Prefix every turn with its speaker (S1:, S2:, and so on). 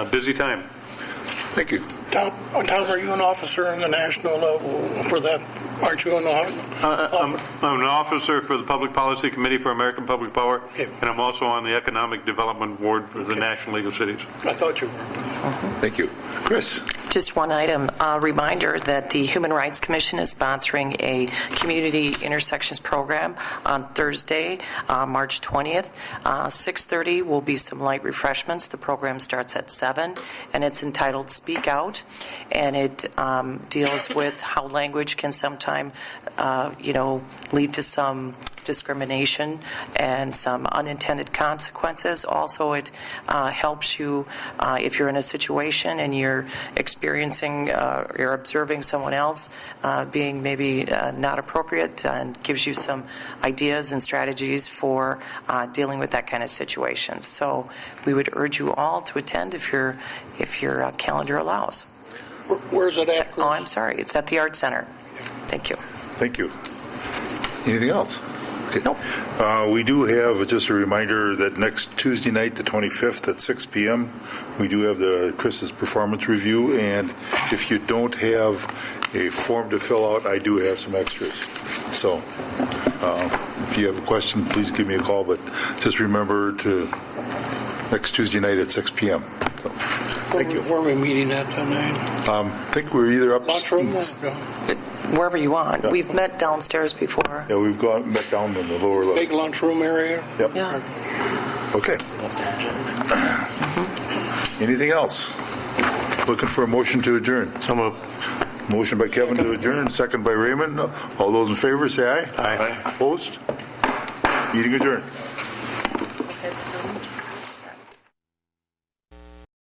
S1: A busy time.
S2: Thank you.
S3: Tom, uh, Tom, are you an officer on the national level for that? Aren't you an officer?
S1: Uh, I'm I'm an officer for the Public Policy Committee for American Public Power,
S3: Okay.
S1: and I'm also on the Economic Development Board for the
S3: Okay.
S1: National League of Cities.
S3: I thought you were.
S2: Uh-huh. Thank you. Chris?
S4: Just one item, a reminder that the Human Rights Commission is sponsoring a community intersections program on Thursday, uh, March 20th. Uh, 6:30 will be some light refreshments. The program starts at 7, and it's entitled Speak Out, and it um, deals with how language can sometime, uh, you know, lead to some discrimination and some unintended consequences. Also, it uh, helps you uh, if you're in a situation and you're experiencing uh, you're observing someone else uh, being maybe uh, not appropriate and gives you some ideas and strategies for uh, dealing with that kind of situation. So we would urge you all to attend if your if your uh, calendar allows.
S3: Where- Where's it at, Chris?
S4: Oh, I'm sorry, it's at the Art Center. Thank you.
S2: Thank you. Anything else? Okay.
S4: Nope.
S2: Uh, We do have, just a reminder, that next Tuesday night, the 25th at 6 PM, we do have the Chris's performance review, and if you don't have a form to fill out, I do have some extras. So uh, if you have a question, please give me a call, but just remember to, next Tuesday night at 6 PM. So, Thank you.
S3: Where are we meeting at tonight?
S2: Um, I think we're either up...
S3: Lunchroom? or-
S4: Wherever you want.
S2: Yeah.
S4: We've met downstairs before.
S2: Yeah, we've gone, met down in the lower level.
S3: Big lunchroom area?
S2: Yep.
S4: Yeah.
S2: Okay. Anything else? Looking for a motion to adjourn.
S1: So moved.
S2: Motion by Kevin to adjourn, second by Raymond. All those in favor, say aye.
S1: Aye.
S2: Opposed? Meeting adjourned.